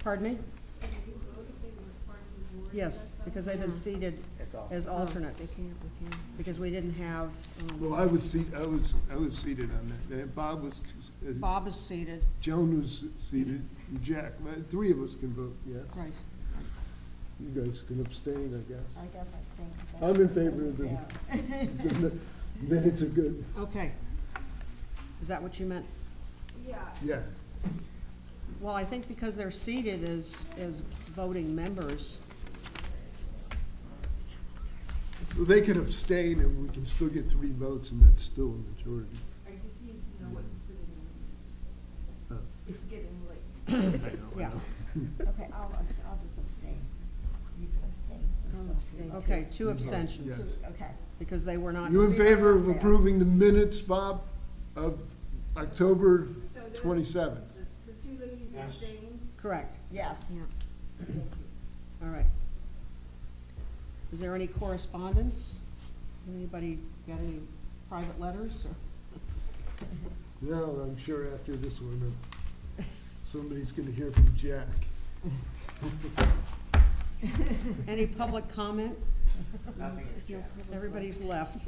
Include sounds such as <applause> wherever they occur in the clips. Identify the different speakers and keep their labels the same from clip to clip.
Speaker 1: Pardon me? Yes, because they've been seated as alternates, because we didn't have, um,
Speaker 2: Well, I was seat, I was, I was seated on that. Uh, Bob was, uh,
Speaker 1: Bob is seated,
Speaker 2: Joan was seated, and Jack, Uh, three of us can vote, yeah.
Speaker 1: right.
Speaker 2: You guys can abstain, I guess.
Speaker 3: I guess I think.
Speaker 2: I'm in favor of the, <laughs> the mi- minutes are good,
Speaker 1: Okay. Is that what you meant?
Speaker 2: yeah.
Speaker 1: Well, I think because they're seated as, as voting members,
Speaker 2: So they can abstain and we can still get three votes and that's still a majority.
Speaker 4: I just need to know what you put in the minutes.
Speaker 2: Uh,
Speaker 4: It's getting late.
Speaker 2: I know, I
Speaker 1: Yeah.
Speaker 2: know.
Speaker 3: Okay, I'll, abs- I'll just abstain. You can abstain.
Speaker 1: okay, two abstentions,
Speaker 2: Yes.
Speaker 3: Okay.
Speaker 1: because they were not,
Speaker 2: You in favor of
Speaker 3: Yeah.
Speaker 2: approving the minutes, Bob, of October twenty-seventh?
Speaker 4: The the two ladies are staying.
Speaker 1: correct,
Speaker 3: Yes.
Speaker 1: all right. Is there any correspondence? Anybody got any private letters, or,
Speaker 2: No, I'm sure after this one, uh, somebody's gonna hear from Jack.
Speaker 1: any public comment?
Speaker 5: Nothing is changed.
Speaker 1: Everybody's left.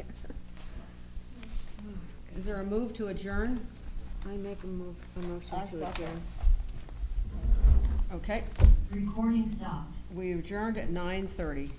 Speaker 1: Is there a move to adjourn?
Speaker 6: I make a move, a motion
Speaker 3: I
Speaker 6: to
Speaker 3: second.
Speaker 6: adjourn.
Speaker 1: Okay,
Speaker 7: Recording stopped.
Speaker 1: we adjourned at nine thirty.